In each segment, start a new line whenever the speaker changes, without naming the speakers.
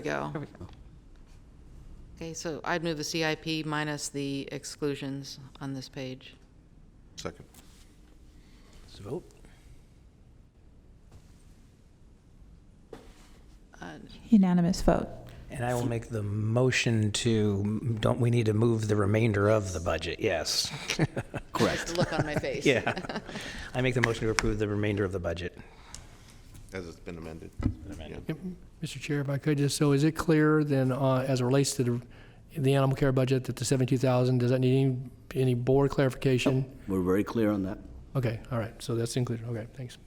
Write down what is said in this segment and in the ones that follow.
we go.
There we go.
Okay, so I'd move the CIP minus the exclusions on this page.
Second.
Let's vote.
Uh,
Unanimous vote.
And I will make the motion to, don't we need to move the remainder of the budget? Yes.
The look on my face.
Yeah. I make the motion to approve the remainder of the budget.
As it's been amended.
Yep. Mr. Chair, if I could just, so is it clear then, uh, as it relates to the, the animal care budget, that the 72,000, does that need any, any board clarification?
We're very clear on that.
Okay, all right, so that's included, okay, thanks.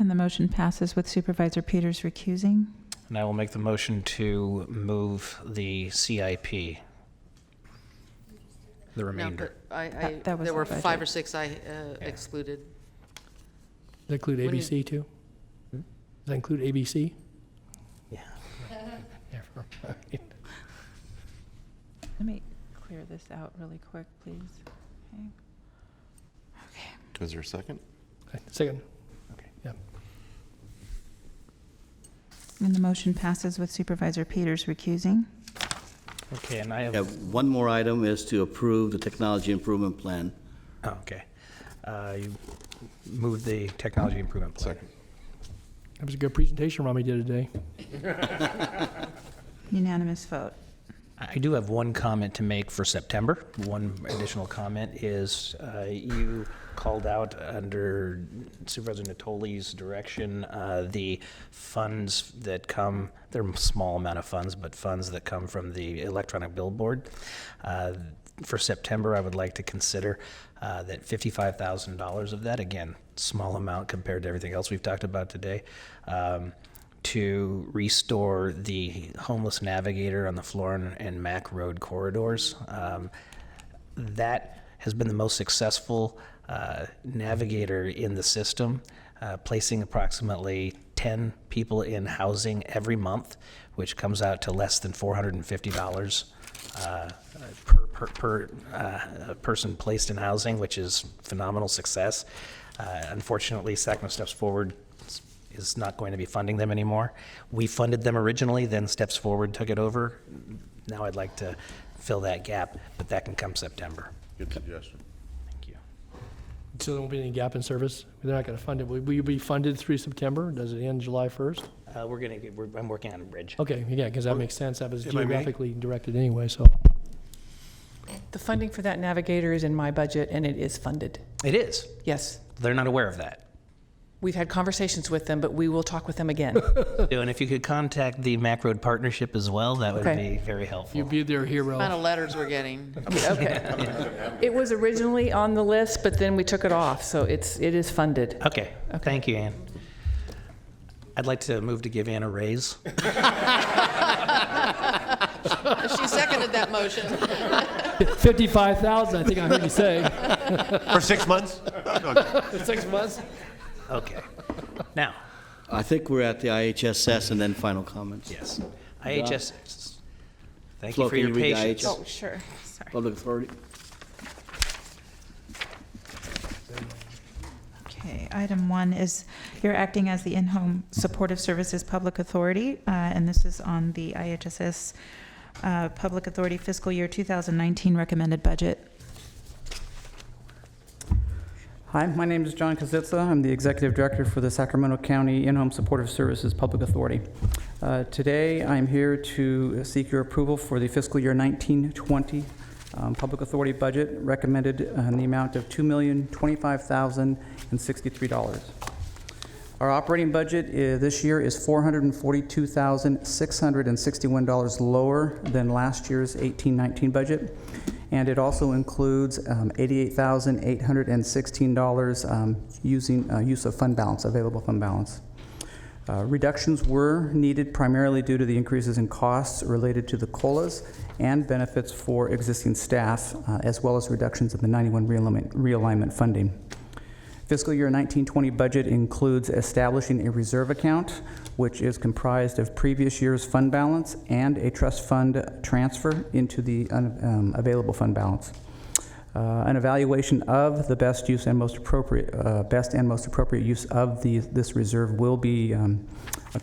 And the motion passes with Supervisor Peters recusing.
And I will make the motion to move the CIP. The
No,
remainder.
but I, I,
That- that was
there
the
were five
budget.
or six I uh, excluded.
Does that include
What do you-
ABC too? Hmm? Does that include ABC?
Yeah.
Never mind.
Let me clear this out really quick, please. Okay.
Is there a second?
Okay, Second.
Okay.
Yeah.
And the motion passes with Supervisor Peters recusing.
Okay, and I
We
have,
have one more item is to approve the technology improvement plan.
oh, okay. Uh, You moved the technology improvement plan.
Second.
That was a good presentation Rami did today.
Unanimous vote.
I do have one comment to make for September. One additional comment is uh, you called out under Supervisor Natoli's direction, uh, the funds that come, they're a small amount of funds, but funds that come from the electronic billboard. Uh, For September, I would like to consider uh, that $55,000 of that, again, small amount compared to everything else we've talked about today, um, to restore the homeless navigator on the Florin and Mac Road corridors. Um, that has been the most successful uh, navigator in the system, uh, placing approximately 10 people in housing every month, which comes out to less than $450 uh, per, per, per uh, person placed in housing, which is phenomenal success. Uh, unfortunately, SACMA steps forward is not going to be funding them anymore. We funded them originally, then Steps Forward took it over. Now I'd like to fill that gap, but that can come September.
Good suggestion.
Thank you.
So there won't be any gap in service? They're not going to fund it. Will will you be funded through September? Does it end July 1st?
Uh, we're gonna, get- we're, I'm working on a bridge.
Okay, yeah, because that makes sense. That was
If I may?
geographically directed anyway, so.
The funding for that navigator is in my budget and it is funded.
It is.
Yes.
They're not aware of that.
We've had conversations with them, but we will talk with them again.
And if you could contact the Mac Road Partnership as well, that would
Okay.
be very
You'd
helpful.
be their
Oh.
hero.
Amount of letters we're getting.
It was originally on the list, but then we took it off, so it's, it is funded.
Okay, thank you, Ann. I'd like to move to give Ann a raise.
She seconded that motion.
55,000, I think I heard you say.
For six months?
Six months?
Okay. Now,
I think we're at the IHSS and then final comments.
yes, IHS, thank you
Flo,
for
can
your
you read the
patience.
IHS?
sure. Sorry.
Public authority.
Okay, item one is you're acting as the in-home supportive services public authority, uh, and this is on the IHSS uh, Public Authority Fiscal Year 2019 Recommended Budget.
Hi, my name is John Kazitsa. I'm the Executive Director for the Sacramento County In-Home Supportive Services Public Authority. Uh, Today, I'm here to seek your approval for the fiscal year 1920 um, Public Authority budget recommended uh, in the amount of $2,025,063. Our operating budget uh, this year is $442,661 lower than last year's 1819 budget, and it also includes um, $88,816 um, using, uh, use of fund balance, available fund balance. Uh, Reductions were needed primarily due to the increases in costs related to the COLAs and benefits for existing staff, uh, as well as reductions in the 91 realignment- realignment funding. Fiscal year 1920 budget includes establishing a reserve account, which is comprised of previous year's fund balance and a trust fund transfer into the un- um, available fund balance. Uh, An evaluation of the best use and most appropriate, uh, best and most appropriate use of the, this reserve will be um,